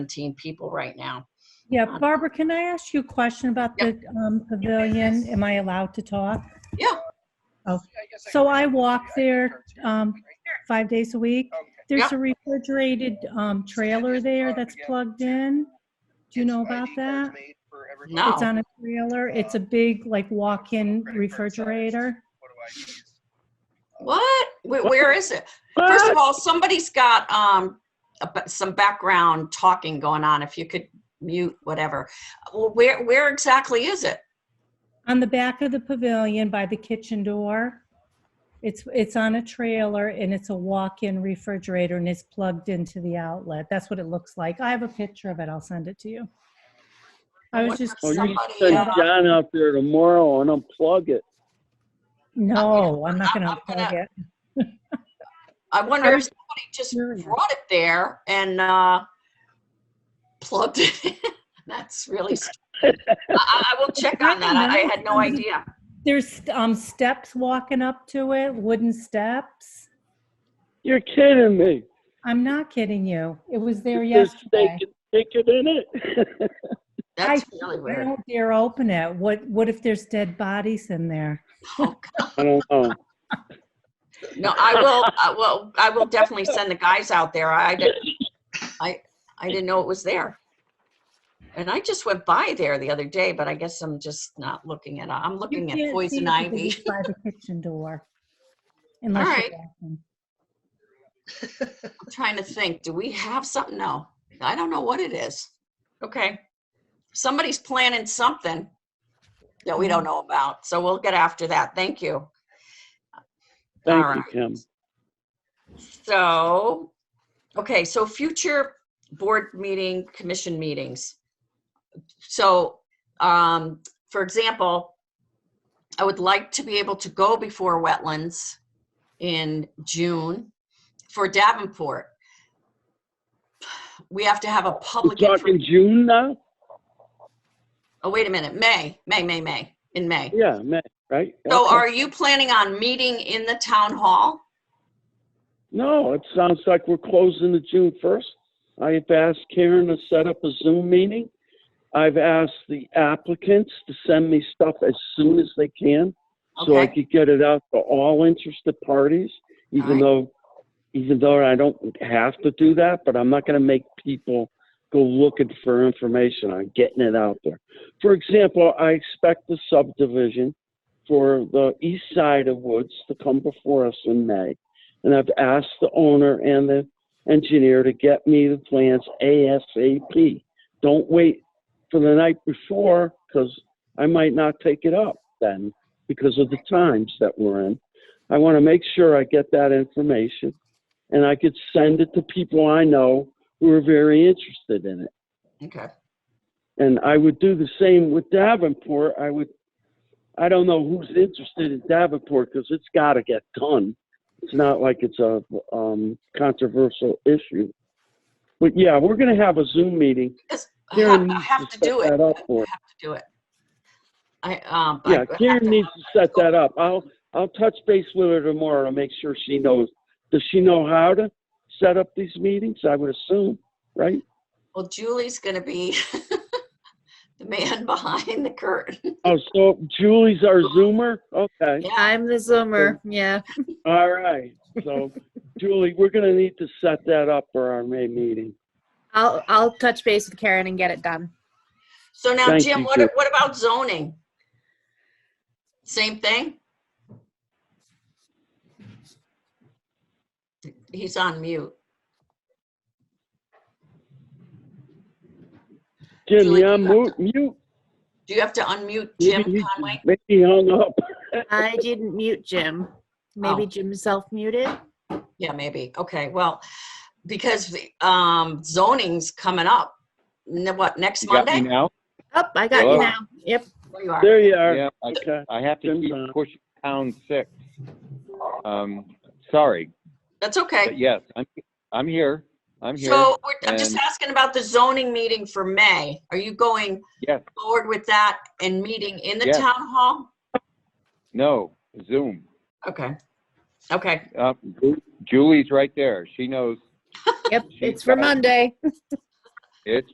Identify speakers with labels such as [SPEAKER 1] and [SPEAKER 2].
[SPEAKER 1] 17 people right now.
[SPEAKER 2] Yeah, Barbara, can I ask you a question about the um, pavilion? Am I allowed to talk?
[SPEAKER 1] Yeah.
[SPEAKER 2] Oh. So I walk there um, five days a week. There's
[SPEAKER 1] Yeah.
[SPEAKER 2] a refrigerated um, trailer there that's plugged in. Do you know about that?
[SPEAKER 1] No.
[SPEAKER 2] It's on a trailer. It's a big, like, walk-in refrigerator.
[SPEAKER 1] What? Wh- Where is it? First of all, somebody's got um, a b- some background talking going on. If you could mute whatever. Well, where where exactly is it?
[SPEAKER 2] On the back of the pavilion by the kitchen door. It's, it's on a trailer and it's a walk-in refrigerator and it's plugged into the outlet. That's what it looks like. I have a picture of it. I'll send it to you. I was just,
[SPEAKER 1] Well,
[SPEAKER 3] Or Oh, you
[SPEAKER 1] Somebody,
[SPEAKER 3] send
[SPEAKER 1] uh,
[SPEAKER 3] John out there tomorrow and unplug it.
[SPEAKER 2] no, I'm not
[SPEAKER 1] I'm
[SPEAKER 2] gonna
[SPEAKER 1] gonna-
[SPEAKER 2] plug it.
[SPEAKER 1] I wonder if
[SPEAKER 2] was
[SPEAKER 1] somebody just
[SPEAKER 2] curious.
[SPEAKER 1] brought it there and uh, plugged it. in. That's really. st- I, I will check on that. I, I had no idea.
[SPEAKER 2] There's um steps walking up to it, wooden steps.
[SPEAKER 3] You're kidding me.
[SPEAKER 2] I'm not kidding you. It was there
[SPEAKER 3] Just
[SPEAKER 2] yesterday.
[SPEAKER 3] Take it take it in it.
[SPEAKER 1] That's
[SPEAKER 2] I-
[SPEAKER 1] really
[SPEAKER 2] I
[SPEAKER 1] weird.
[SPEAKER 2] don't dare open it. What, what if there's dead bodies in there?
[SPEAKER 1] Oh,
[SPEAKER 3] I don't know.
[SPEAKER 1] No, I will, I will, I will definitely send the guys out there. I didn't, I, I didn't know it was there. And I just went by there the other day, but I guess I'm just not looking at, I'm
[SPEAKER 2] You
[SPEAKER 1] looking
[SPEAKER 2] can't
[SPEAKER 1] at
[SPEAKER 2] see
[SPEAKER 1] poison
[SPEAKER 2] it because
[SPEAKER 1] ivy.
[SPEAKER 2] it's By the kitchen door. Unless
[SPEAKER 1] Alright.
[SPEAKER 2] you're walking.
[SPEAKER 1] I'm trying to think, do we have something? No, I don't know what it is. Okay. Somebody's planning something that we
[SPEAKER 2] Mm-hmm.
[SPEAKER 1] don't know about, so we'll get after that. Thank you.
[SPEAKER 3] Thank you,
[SPEAKER 1] Alright.
[SPEAKER 3] Kim.
[SPEAKER 1] So, okay, so future board meeting, commission meetings. So, um, for example, I would like to be able to go before wetlands in June for Davenport. We have to have a
[SPEAKER 3] We're
[SPEAKER 1] public,
[SPEAKER 3] talking
[SPEAKER 1] infor-
[SPEAKER 3] June now?
[SPEAKER 1] oh, wait a minute, May, May, May, May, in May.
[SPEAKER 3] Yeah, May, right?
[SPEAKER 1] So
[SPEAKER 3] Okay.
[SPEAKER 1] are you planning on meeting in the town hall?
[SPEAKER 3] No, it sounds like we're closing the June first. I have asked Karen to set up a Zoom meeting. I've asked the applicants to send me stuff as soon as they can, so I
[SPEAKER 1] Okay.
[SPEAKER 3] could get it out to all interested parties,
[SPEAKER 1] Alright.
[SPEAKER 3] even though, even though I don't have to do that, but I'm not gonna make people go looking for information. I'm getting it out there. For example, I expect the subdivision for the east side of Woods to come before us in May. And I've asked the owner and the engineer to get me the plans ASAP. Don't wait for the night before because I might not take it up then because of the times that we're in. I want to make sure I get that information and I could send it to people I know who are very interested in it.
[SPEAKER 1] Okay.
[SPEAKER 3] And I would do the same with Davenport. I would, I don't know who's interested in Davenport because it's got to get done. It's not like it's a um, controversial issue. But yeah, we're going to have a Zoom meeting.
[SPEAKER 1] Because I have-
[SPEAKER 3] Karen
[SPEAKER 1] I
[SPEAKER 3] needs
[SPEAKER 1] have to
[SPEAKER 3] set
[SPEAKER 1] do it.
[SPEAKER 3] That up for. us.
[SPEAKER 1] have to do it. I, um. I
[SPEAKER 3] Yeah,
[SPEAKER 1] have to-
[SPEAKER 3] Karen needs to set that up. I'll, I'll touch base with her tomorrow to make sure she knows. Does she know how to set up these meetings? I would assume, right?
[SPEAKER 1] Well, Julie's gonna be the man behind the curtain.
[SPEAKER 3] Oh, so Julie's our Zoomer? Okay.
[SPEAKER 1] Yeah,
[SPEAKER 4] I'm the zoomer, yeah.
[SPEAKER 3] All right, so Julie, we're gonna need to set that up for our May meeting.
[SPEAKER 4] I'll, I'll touch base with Karen and get it done.
[SPEAKER 1] so now
[SPEAKER 3] Thank
[SPEAKER 1] Jim,
[SPEAKER 3] you,
[SPEAKER 1] what,
[SPEAKER 3] Julie.
[SPEAKER 1] what about zoning? Same thing? He's on mute.
[SPEAKER 3] Jim,
[SPEAKER 1] Julie,
[SPEAKER 3] yeah,
[SPEAKER 1] you have
[SPEAKER 3] mute, mute.
[SPEAKER 1] Do you have to unmute Jim
[SPEAKER 3] Maybe he-
[SPEAKER 1] Conway?
[SPEAKER 3] maybe he hung up.
[SPEAKER 4] I didn't mute Jim. Maybe
[SPEAKER 1] Oh.
[SPEAKER 4] Jim self-muted?
[SPEAKER 1] Yeah, maybe. Okay, well, because the, um, zoning's coming up. Ne- What, next
[SPEAKER 5] You got me
[SPEAKER 1] Monday?
[SPEAKER 5] now?
[SPEAKER 4] Oh, I got you
[SPEAKER 5] Hello?
[SPEAKER 4] now. Yep.
[SPEAKER 1] There you are.
[SPEAKER 3] There you are.
[SPEAKER 5] Yeah, I,
[SPEAKER 3] Okay.
[SPEAKER 5] I have to
[SPEAKER 3] Jim's
[SPEAKER 5] keep
[SPEAKER 3] on.
[SPEAKER 5] pushing pound six. Um, sorry,
[SPEAKER 1] That's
[SPEAKER 5] but
[SPEAKER 1] okay.
[SPEAKER 5] yes, I'm, I'm here, I'm here,
[SPEAKER 1] So we're- I'm just
[SPEAKER 5] and-
[SPEAKER 1] asking about the zoning meeting for May. Are you going
[SPEAKER 5] yes,
[SPEAKER 1] forward with that and meeting in the
[SPEAKER 5] Yes.
[SPEAKER 1] town hall?
[SPEAKER 5] no, Zoom.
[SPEAKER 1] Okay, okay,
[SPEAKER 5] Uh, Julie's right there, she knows.
[SPEAKER 4] Yep,
[SPEAKER 5] She's
[SPEAKER 4] it's for
[SPEAKER 5] got it.
[SPEAKER 4] Monday.
[SPEAKER 5] It's